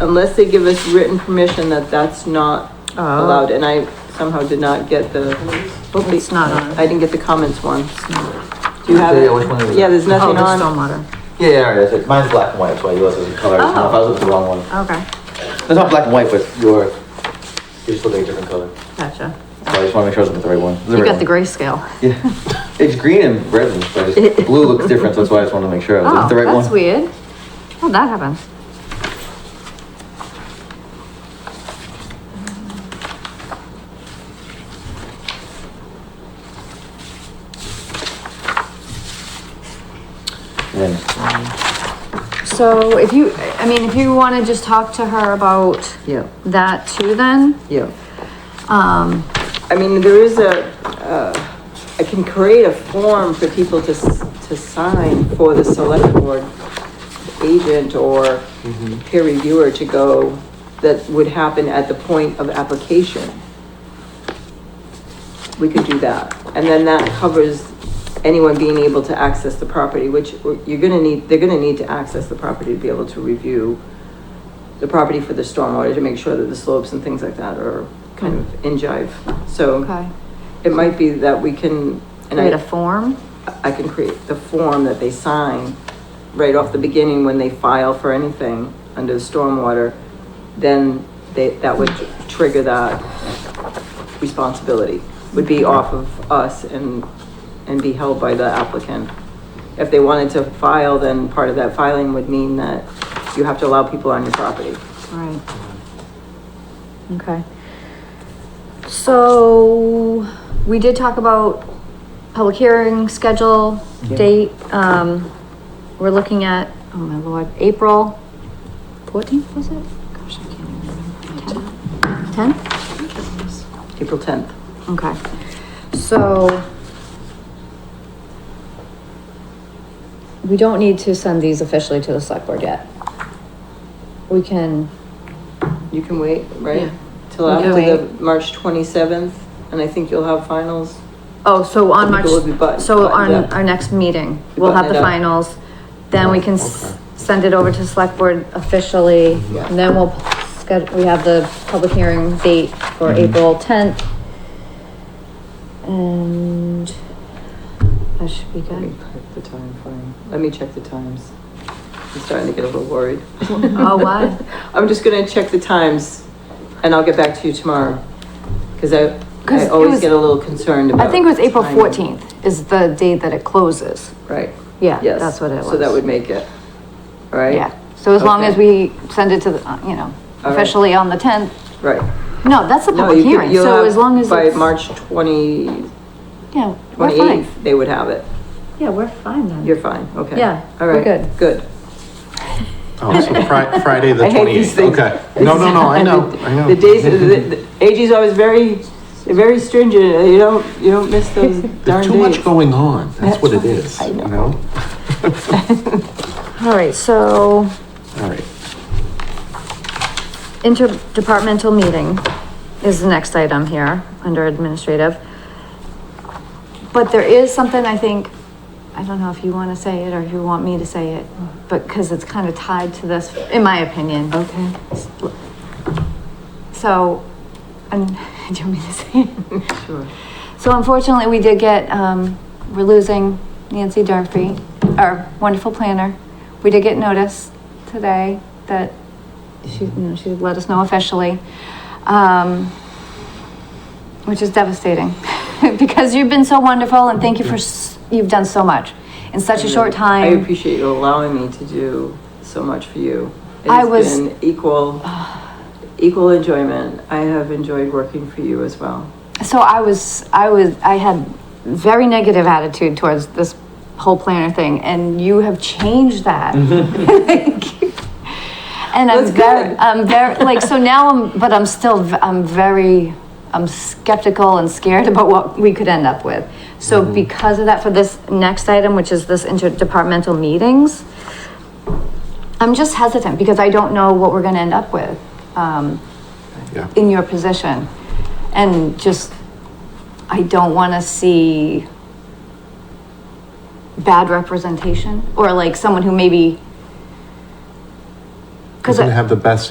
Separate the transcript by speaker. Speaker 1: unless they give us written permission that that's not
Speaker 2: Oh.
Speaker 1: allowed, and I somehow did not get the. hopefully-
Speaker 2: It's not on.
Speaker 1: I didn't get the comments one. Do you have
Speaker 3: Yeah,
Speaker 1: it?
Speaker 3: which one is it?
Speaker 1: Yeah, there's
Speaker 2: Oh,
Speaker 1: nothing
Speaker 2: the
Speaker 1: on.
Speaker 2: stormwater,
Speaker 3: Yeah, yeah, it is. It's- Mine's black and white, that's why yours is color.
Speaker 2: Oh.
Speaker 3: I was looking at the wrong one.
Speaker 2: okay,
Speaker 3: It's not black and white, but your, yours looks like a different color.
Speaker 2: gotcha.
Speaker 3: So I just wanna make sure I was looking at the right one. It's
Speaker 2: You
Speaker 3: right
Speaker 2: got the
Speaker 3: one.
Speaker 2: grayscale.
Speaker 3: Yeah. It's green and red, but it's, blue looks different, so that's why I just wanna make sure I was looking
Speaker 2: Oh,
Speaker 3: at the right one.
Speaker 2: that's weird. Well, that happens.
Speaker 3: And then-
Speaker 2: So if you, I mean, if you wanna just talk to her about
Speaker 4: Yeah,
Speaker 2: that too then,
Speaker 4: yeah.
Speaker 2: um,
Speaker 1: I mean, there is a, uh, I can create a form for people to, s- to sign for the select board agent or peer reviewer to go, that would happen at the point of application. We could do that, and then that covers anyone being able to access the property, which you're gonna need, they're gonna need to access the property to be able to review the property for the stormwater to make sure that the slopes and things like that are kind of in jive.
Speaker 2: Okay.
Speaker 1: So it might be that we can, and
Speaker 2: create a
Speaker 1: I,
Speaker 2: form.
Speaker 1: I can create the form that they sign right off the beginning when they file for anything under the stormwater, then they, that would trigger that responsibility, would be off of us and, and be held by the applicant. If they wanted to file, then part of that filing would mean that you have to allow people on your property.
Speaker 2: Right. Okay. So, we did talk about public hearing schedule, date, um, we're looking at, oh my lord, April fourteenth, was it? Gosh, I can't even remember. Tenth?
Speaker 1: April tenth.
Speaker 2: Okay, so. We don't need to send these officially to the select board yet. We can
Speaker 1: You can wait, right? Till
Speaker 2: We can
Speaker 1: after the
Speaker 2: wait.
Speaker 1: March twenty-seventh, and I think you'll have finals.
Speaker 2: Oh, so on
Speaker 1: I
Speaker 2: March,
Speaker 1: think it would be button-
Speaker 2: so on
Speaker 1: buttoned up.
Speaker 2: our next meeting,
Speaker 1: Be
Speaker 2: we'll have the
Speaker 1: buttoned up. Oh,
Speaker 2: finals. Then we can s- send it over to select board officially,
Speaker 1: Yeah.
Speaker 2: and then we'll schedule, we have the public hearing date for
Speaker 1: Mm-hmm.
Speaker 2: April tenth. And that should be
Speaker 1: Let me
Speaker 2: good.
Speaker 1: check the time frame. Let me check the times. I'm starting to get a little worried.
Speaker 2: Oh, why?
Speaker 1: I'm just gonna check the times, and I'll get back to you tomorrow. Cause I,
Speaker 2: 'Cause
Speaker 1: I
Speaker 2: it
Speaker 1: always
Speaker 2: was-
Speaker 1: get a little concerned about.
Speaker 2: I think it was April
Speaker 1: timing.
Speaker 2: fourteenth is the date that it closes.
Speaker 1: Right.
Speaker 2: Yeah,
Speaker 1: Yes.
Speaker 2: that's what it
Speaker 1: So that
Speaker 2: was.
Speaker 1: would make it, right?
Speaker 2: Yeah, so as long
Speaker 1: Okay.
Speaker 2: as we send it to the, uh, you know,
Speaker 1: right.
Speaker 2: officially on the tenth,
Speaker 1: Right.
Speaker 2: no, that's the
Speaker 1: No,
Speaker 2: public
Speaker 1: you could-
Speaker 2: hearing,
Speaker 1: you'll
Speaker 2: so
Speaker 1: have-
Speaker 2: as long as
Speaker 1: By
Speaker 2: it's-
Speaker 1: March twenty,
Speaker 2: Yeah, we're fine.
Speaker 1: twenty-eighth, they would have it.
Speaker 2: Yeah, we're fine then.
Speaker 1: You're fine, okay.
Speaker 2: Yeah,
Speaker 1: All
Speaker 2: we're
Speaker 1: right,
Speaker 2: good.
Speaker 1: Good.
Speaker 5: Oh, so Fri- Friday the
Speaker 1: I hate these
Speaker 5: 28th.
Speaker 1: things.
Speaker 5: Okay. No, no, no, I know, I know.
Speaker 1: The days, the, the, AG's always very, they're very stringent, you don't, you don't miss those darn
Speaker 5: There's too much
Speaker 1: days.
Speaker 5: going on. That's what it is,
Speaker 1: I
Speaker 5: you
Speaker 1: know.
Speaker 5: know?
Speaker 2: All right, so
Speaker 5: All right.
Speaker 2: interdepartmental meeting is the next item here under administrative. But there is something I think, I don't know if you want to say it or you want me to say it, but because it's kind of tied to this, in my opinion.
Speaker 1: Okay.
Speaker 2: So, and, do you want me to say it?
Speaker 1: Sure.
Speaker 2: So unfortunately, we did get, um, we're losing Nancy Durfee, our wonderful planner. We did get notice today that she, you know, she let us know officially. Um, which is devastating because you've been so wonderful and thank you for, s- you've done so much in such a short time.
Speaker 1: I appreciate you allowing me to do so much for you. It
Speaker 2: I
Speaker 1: has
Speaker 2: was-
Speaker 1: been Equal, equal enjoyment. I have enjoyed working for you as well.
Speaker 2: So I was, I was, I had very negative attitude towards this whole planner thing, and you have changed that. and I'm
Speaker 1: That's
Speaker 2: very,
Speaker 1: good.
Speaker 2: I'm very like so now. I'm, but I'm still, v- I'm very, I'm skeptical and scared about what we could end up with. So because of that, for this next item, which is this interdepartmental meetings, I'm just hesitant because I don't know what we're going to end up with. Um,
Speaker 5: Yeah.
Speaker 2: in your position and just i don't want to see bad representation or like someone who maybe
Speaker 5: Doesn't have the best